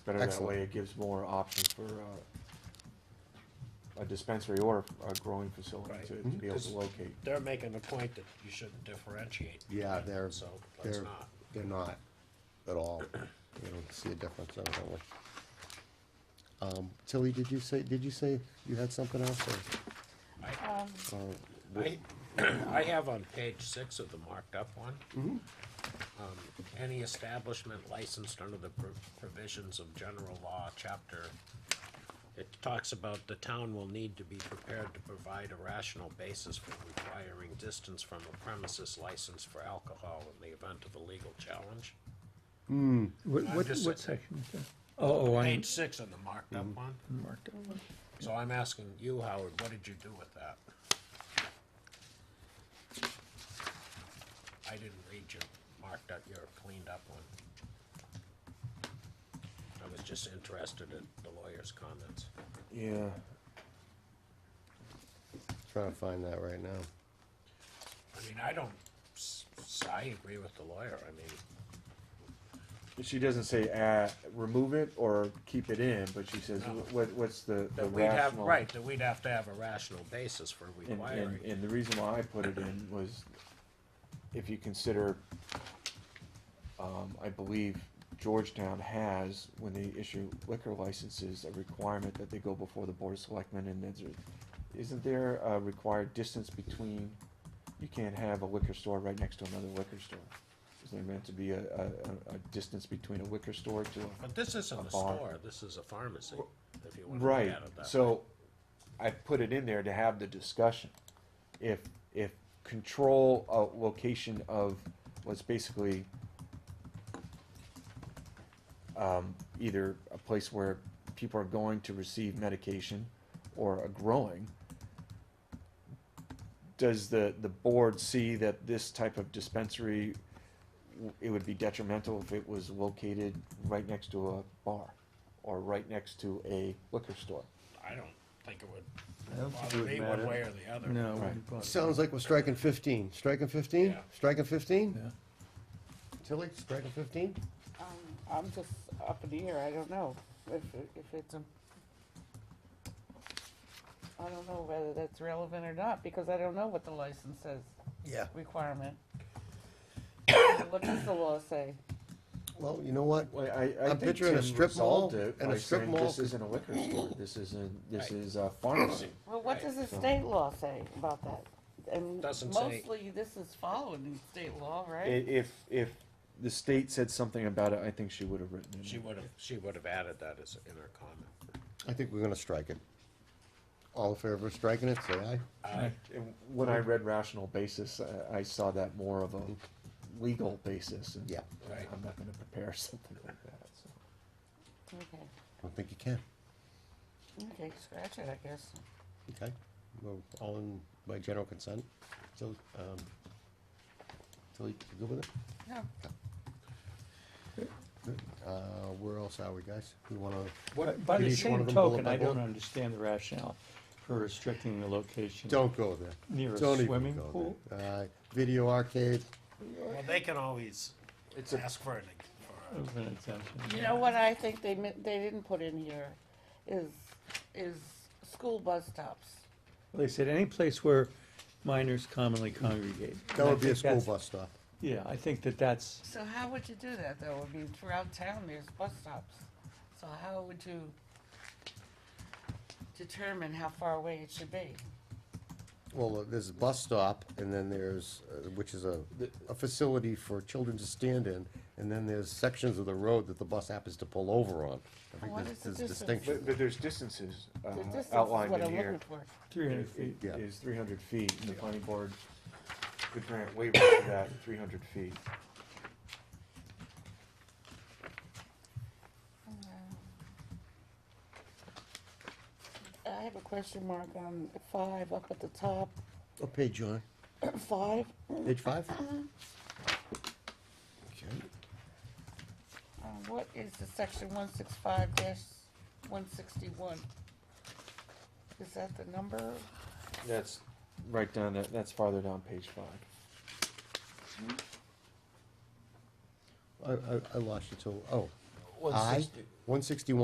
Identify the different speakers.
Speaker 1: Better that
Speaker 2: Excellent.
Speaker 1: way, it gives more options for uh, a dispensary or a growing facility
Speaker 3: Right.
Speaker 1: to to be able to
Speaker 3: Mhm.
Speaker 1: locate.
Speaker 3: They're making the point that you shouldn't differentiate.
Speaker 2: Yeah, they're,
Speaker 3: So, let's
Speaker 2: they're,
Speaker 3: not.
Speaker 2: they're not at all. You don't see a difference evidently. Um, Tilly, did you say, did you say you had something else or? or
Speaker 3: I, I have on page six of the marked up one. Um, Any establishment licensed under the pro- provisions of general law, chapter, it talks about the town will need to be prepared to provide a rational basis for requiring distance from a premises license for alcohol in the event of a legal challenge.
Speaker 4: What,
Speaker 3: I'm
Speaker 4: what,
Speaker 3: just
Speaker 4: what
Speaker 3: saying.
Speaker 4: section is that? Oh, oh, I'm
Speaker 3: Page six of the marked up one.
Speaker 4: marked up.
Speaker 3: So I'm asking you, Howard, what did you do with that? I didn't read your marked up, your cleaned up one. I was just interested in the lawyer's comments.
Speaker 1: Yeah,
Speaker 2: Trying to find that right now.
Speaker 3: I mean, I don't, s- s- I agree with the lawyer, I mean,
Speaker 1: she doesn't say, uh, remove it or keep it in, but she says,
Speaker 3: No.
Speaker 1: what, what's the the
Speaker 3: that we'd have,
Speaker 1: rational?
Speaker 3: right, that we'd have to have a rational basis for
Speaker 1: And, and,
Speaker 3: requiring.
Speaker 1: and the reason why I put it in was if you consider, um, I believe Georgetown has, when they issue liquor licenses, a requirement that they go before the Board of Selectmen and there's, a- isn't there a required distance between, you can't have a liquor store right next to another liquor store. Is there meant to be a, a, a, a distance between a liquor store to a
Speaker 3: But this isn't
Speaker 1: A
Speaker 3: a
Speaker 1: bar.
Speaker 3: store, this is a pharmacy, if you wanna look at it
Speaker 1: Right,
Speaker 3: that way.
Speaker 1: so I put it in there to have the discussion. If, if control a location of what's basically um, either a place where people are going to receive medication or a growing, does the, the board see that this type of dispensary, w- it would be detrimental if it was located right next to a bar or right next to a liquor store?
Speaker 3: I don't think it
Speaker 4: I don't
Speaker 3: would
Speaker 4: think it
Speaker 3: bother
Speaker 4: would
Speaker 3: me one
Speaker 4: matter.
Speaker 3: way or the other.
Speaker 4: No, it
Speaker 1: Right.
Speaker 4: wouldn't bother
Speaker 2: Sounds like we're striking fifteen. Striking fifteen?
Speaker 3: Yeah.
Speaker 2: Striking fifteen?
Speaker 4: me. Yeah.
Speaker 2: Tilly, striking fifteen?
Speaker 5: Um, I'm just up in the air, I don't know if, if it's a, I don't know whether that's relevant or not, because I don't know what the license says
Speaker 2: Yeah.
Speaker 5: requirement. What does the law say?
Speaker 2: Well, you know what?
Speaker 1: Well, I, I
Speaker 2: I'm
Speaker 1: think
Speaker 2: picturing a
Speaker 1: Tim
Speaker 2: strip mall
Speaker 1: resolved it
Speaker 2: and
Speaker 1: by
Speaker 2: a strip
Speaker 1: saying
Speaker 2: mall
Speaker 1: this
Speaker 2: could-
Speaker 1: isn't a liquor store, this isn't, this
Speaker 3: Right.
Speaker 1: is a pharmacy.
Speaker 5: Well, what does the
Speaker 1: so-
Speaker 5: state law say about that? And
Speaker 3: Doesn't say.
Speaker 5: mostly this is following state law,
Speaker 1: I-
Speaker 5: right?
Speaker 1: If, if the state said something about it, I think she would have written it.
Speaker 3: She would have, she would have added that as, in her comment.
Speaker 2: I think we're gonna strike it. All in favor of striking it, say aye.
Speaker 1: And When I read rational basis, I, I saw that more of a legal basis, and
Speaker 2: Yeah.
Speaker 3: Right.
Speaker 1: I'm not gonna prepare something like that, so.
Speaker 5: Okay,
Speaker 2: I don't think you can.
Speaker 5: okay, scratch it, I guess.
Speaker 2: Okay, well, all in by general consent, so, um, so you you good with it?
Speaker 5: Yeah.
Speaker 2: Good. Uh, where else are we, guys? We wanna,
Speaker 4: But By
Speaker 2: Did
Speaker 4: the
Speaker 2: each one
Speaker 4: same
Speaker 2: of them bullet
Speaker 4: token,
Speaker 2: by
Speaker 4: I don't
Speaker 2: bullet?
Speaker 4: understand the rationale for restricting the location.
Speaker 2: don't go there.
Speaker 4: Near a
Speaker 2: Don't even
Speaker 4: swimming
Speaker 2: go
Speaker 4: pool?
Speaker 2: there. Uh, video arcade,
Speaker 3: Well, they can always
Speaker 1: It's a-
Speaker 3: ask for an, for a-
Speaker 4: Of an exemption.
Speaker 5: You know what I think they, mi- they didn't put in here is, is school bus stops.
Speaker 4: Well, They said any place where minors commonly congregate.
Speaker 2: that would be
Speaker 4: And I
Speaker 2: a
Speaker 4: think
Speaker 2: school
Speaker 4: that's-
Speaker 2: bus stop.
Speaker 4: Yeah, I think that that's,
Speaker 5: So how would you do that though? I mean, throughout town, there's bus stops. So how would you determine how far away it should be?
Speaker 2: Well, uh, there's a bus stop, and then there's, uh, which is a, a facility for children to stand in, and then there's sections of the road that the bus happens to pull over on. I think
Speaker 5: What
Speaker 2: there's-
Speaker 5: is the
Speaker 2: there's
Speaker 5: distance?
Speaker 2: distinction.
Speaker 1: But, but there's distances, uh,
Speaker 5: The distance is
Speaker 1: outlined
Speaker 5: what
Speaker 1: in
Speaker 5: I'm
Speaker 1: here.
Speaker 5: looking for.
Speaker 4: three hundred
Speaker 1: It
Speaker 4: feet.
Speaker 2: Yeah.
Speaker 1: is three hundred feet, and the planning board could grant waiver to that three hundred feet.
Speaker 5: I have a question mark on five up at the top.
Speaker 2: What Oh, page, John?
Speaker 5: Five,
Speaker 2: Page five?
Speaker 5: Uh-huh.
Speaker 2: Okay.
Speaker 5: uh, what is the section one six five dash one sixty-one? Is that the number?
Speaker 1: That's right down, that- that's farther down page five.
Speaker 2: I, I, I lost you till, oh,
Speaker 1: One
Speaker 2: I,
Speaker 1: sixty-
Speaker 2: one sixty-one